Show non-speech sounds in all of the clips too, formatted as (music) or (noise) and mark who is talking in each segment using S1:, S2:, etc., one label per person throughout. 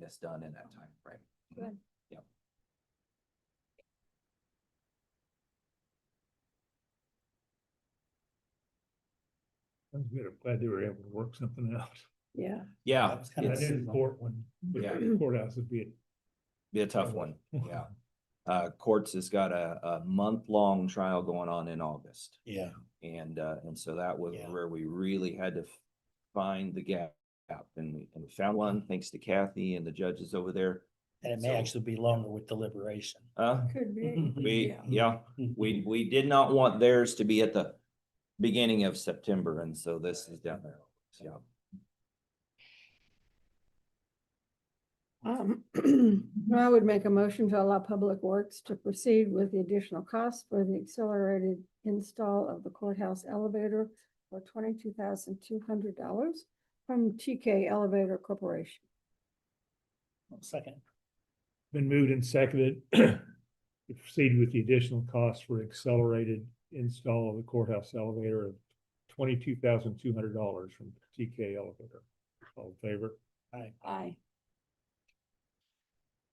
S1: this done in that time frame.
S2: Good.
S1: Yep.
S3: Sounds good. I'm glad they were able to work something out.
S2: Yeah,
S1: Yeah,
S3: That was kind of, I
S1: it's,
S3: didn't court one.
S1: Yeah.
S3: Courthouse would be.
S1: be a tough one, yeah. Uh, courts has got a, a month-long trial going on in August.
S3: Yeah.
S1: And, uh, and so that was
S3: Yeah.
S1: where we really had to f- find the gap. And we, and we found one, thanks to Kathy and the judges over there.
S4: And it
S1: So-
S4: may actually be longer with deliberation.
S1: Uh,
S2: could be.
S4: Mm-hmm.
S1: we,
S2: Yeah.
S1: yeah, we, we did not want theirs to be at the beginning of September, and so this is down there. Yeah,
S2: Um, (clears throat) I would make a motion to allow Public Works to proceed with the additional cost for the accelerated install of the courthouse elevator for twenty-two thousand two hundred dollars from TK Elevator Corporation.
S4: Second,
S3: Been moved and seconded. (clears throat) to Proceed with the additional cost for accelerated install of the courthouse elevator of twenty-two thousand two hundred dollars from TK Elevator. All in favor?
S2: Aye.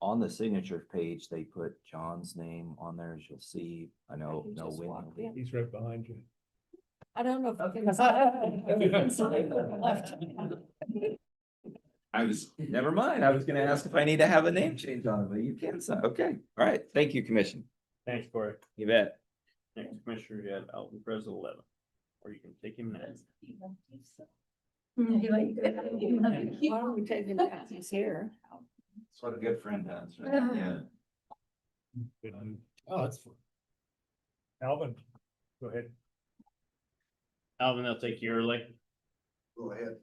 S1: on the signature page, they put John's name on there, as you'll see. I know,
S2: can
S1: no
S2: just walk
S1: Wendy.
S2: in.
S3: He's right behind you.
S2: I don't know if. I can-
S1: I was, never mind, I was gonna ask if I need to have a name change on it, but you can, so, okay, all right, thank you, commission.
S5: Thanks, Corey.
S1: You bet.
S5: Next commissioner, you have Alvin Perez at eleven, or you can take him next.
S2: Why don't we take him down? He's here.
S1: That's what a good friend does,
S2: (sighs) right? Yeah.
S3: Good move.
S4: oh, it's
S3: Alvin, go ahead.
S5: Alvin, I'll take you early.
S6: Go ahead.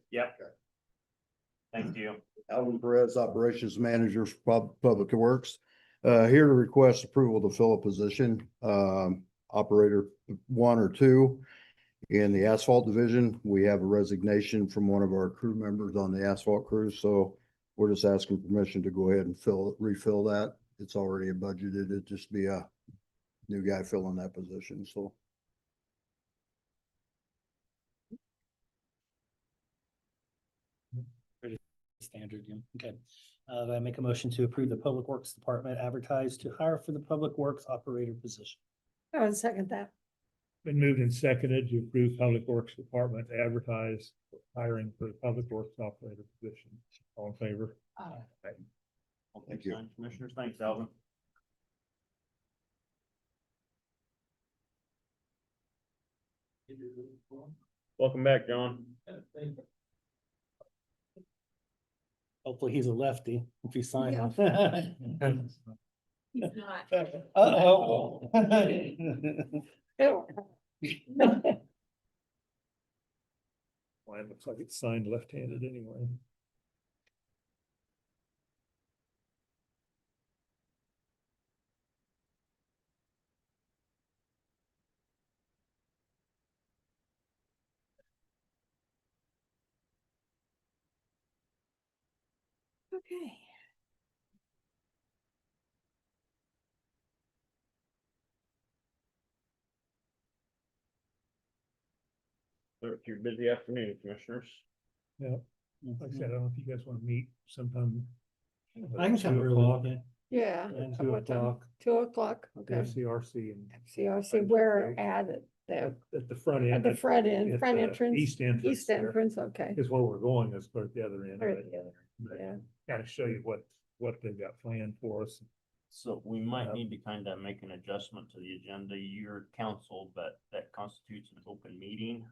S5: Thank you.
S6: Alvin Perez, Operations Manager for Pub- Public Works. Uh, here to request approval to fill a position, um, operator one or two. In the asphalt division, we have a resignation from one of our crew members on the asphalt crew, so we're just asking permission to go ahead and fill, refill that. It's already budgeted. It'd just be a new guy filling that position, so.
S4: standard, yeah, okay. Uh, I make a motion to approve the Public Works Department advertised to hire for the Public Works Operator position.
S2: I would second that.
S3: Been moved and seconded to approve Public Works Department to advertise for hiring for the Public Works Operator position. All in favor?
S5: I'll take
S6: Thank you.
S5: nine Commissioners, thanks, Alvin. Welcome back, John.
S4: Hopefully he's a lefty if he signs. (laughs)
S7: He's not.
S4: Uh-oh.
S2: Ew.
S3: Mine looks like it's signed left-handed anyway.
S2: Okay.
S5: It's your busy afternoon, Commissioners.
S3: Like I said, I don't know if you guys want to meet sometime.
S4: I can come early. yeah.
S2: Yeah.
S3: At
S2: At
S3: two
S2: what time?
S3: o'clock,
S2: Two o'clock, okay.
S3: FCRC and
S2: CRC, where at it, the,
S3: at the front end.
S2: at the front
S3: at
S2: end, front
S4: uh,
S3: the
S2: entrance,
S3: East entrance.
S2: east
S3: there,
S2: entrance, okay.
S3: Is where we're going, is toward the other end.
S2: Or the other, yeah.
S3: Kind of show you what, what they've got planned for us.
S5: So we might need to kind of make an adjustment to the agenda. Your council, but that constitutes an open meeting,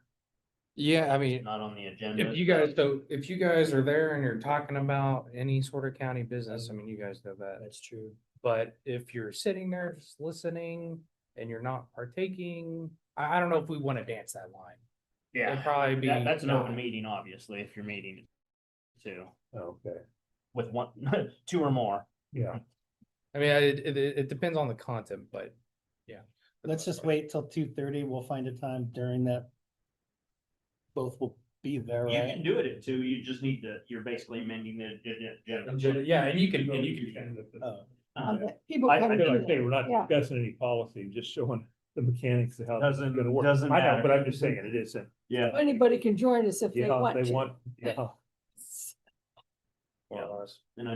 S8: Yeah, I mean,
S5: not on the agenda.
S8: if you guys don't, if you guys are there and you're talking about any sort of county business, I mean, you guys know that.
S4: That's true.
S8: But if you're sitting there just listening and you're not partaking, I, I don't know if we want to dance that line.
S5: Yeah,
S8: It'd probably be.
S5: That- that's an open meeting, obviously, if you're meeting two
S3: Okay.
S5: with one, (laughs) two or more.
S3: Yeah,
S8: I mean, I- it, it, it depends on the content, but yeah. for the
S4: Let's
S8: most
S4: just
S8: part.
S4: wait till two thirty. We'll find a time during that. Both will be there,
S5: You can
S4: right?
S5: do it at two, you just need to, you're basically amending the agenda.
S8: Yeah, and you can,
S5: Yeah,
S8: and you
S5: you
S8: can.
S4: Oh,
S5: Uh,
S2: Okay, People
S5: I-
S2: come
S5: I
S3: I
S5: feel
S3: feel
S2: in.
S3: like they were not
S2: Yeah.
S3: discussing any policy, just showing the mechanics of how. this is
S5: Doesn't-
S3: gonna work.
S5: doesn't
S3: I know,
S5: matter.
S3: but I'm just saying, it isn't.
S5: Yeah.
S2: Anybody can join us if they
S3: Yeah,
S2: want
S3: they
S2: to.
S3: want, yeah.
S5: Or us. And I